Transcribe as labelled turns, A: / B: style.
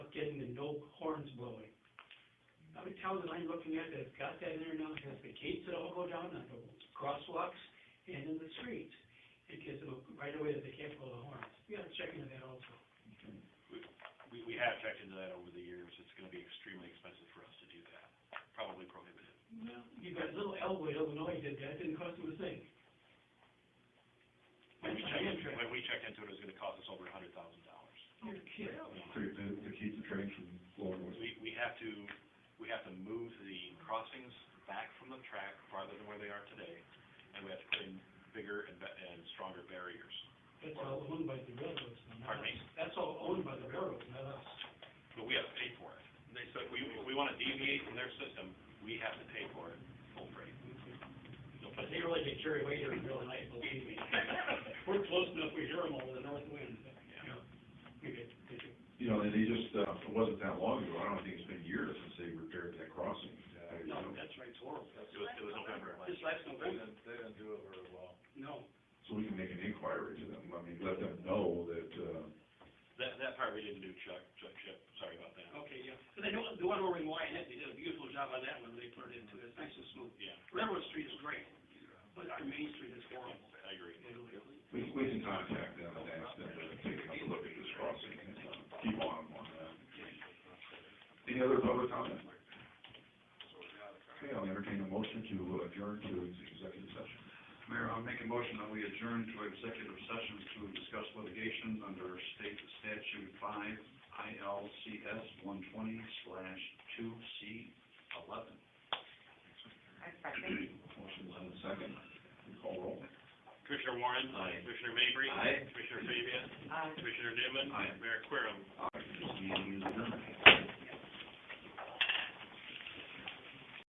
A: How many towns am I looking at that's got that in there now, has the gates that all go down on the crosswalks and in the streets? It gives them a right away that they can't blow the horns. We gotta check into that also.
B: We, we have checked into that over the years, it's gonna be extremely expensive for us to do that, probably prohibitive.
A: Well, you got little Elway, Illinois did that, didn't cost them a thing.
B: When we
A: That's
B: checked,
A: my
B: in-
A: interest.
B: when we checked into it, it was gonna cost us over a hundred thousand dollars.
A: You're kidding.
C: to, to keep the train from blowing away.
B: We, we have to, we have to move the crossings back from the track farther than where they are today, and we have to put in bigger and, be- and stronger barriers.
A: That's all owned by the railroads, not us.
B: Pardon me?
A: That's all owned by the railroads, not us.
B: But we have to pay for it. They said, we, if we wanna deviate from their system, we have to pay for it, full freight. They'll
A: But
B: put
A: they really get carried away during the middle of the night, believe me. We're close enough, we hear them over the north wind, but, you know, we get, we get
C: You know, and they just, uh, it wasn't that long ago, I don't think it's been years since they repaired that crossing. Uh, you
A: No,
C: know,
A: that's right, it's horrible.
B: It was, it was November of last
A: This last November,
B: They didn't do it very well.
A: no.
C: So we can make an inquiry to them, I mean, let them know that, uh,
B: That, that part we didn't do, Chuck, Chuck, Chip, sorry about that.
A: Okay, yeah. But they don't, the one over in Wyatt, they did a beautiful job on that one, they put it into it, it's nice and smooth.
B: Yeah,
A: Railroad Street is great, but our Main Street is horrible.
B: I agree.
C: we, we can contact them and ask them to take a look at this crossing and uh, keep on them on that. Any other public comment? Okay, I'll entertain a motion to adjourn to executive session.
D: Mayor, I'll make a motion that we adjourn to executive session to discuss litigation under state statute five ILCS one twenty slash two C eleven.
C: Motion and a second, call roll.
B: Commissioner Warren.
D: Aye.
B: Commissioner Mabry.
D: Aye.
B: Commissioner Fabia. Commissioner Newman.
D: Aye.
B: Mayor Querem.
C: Aye. This meeting is adjourned.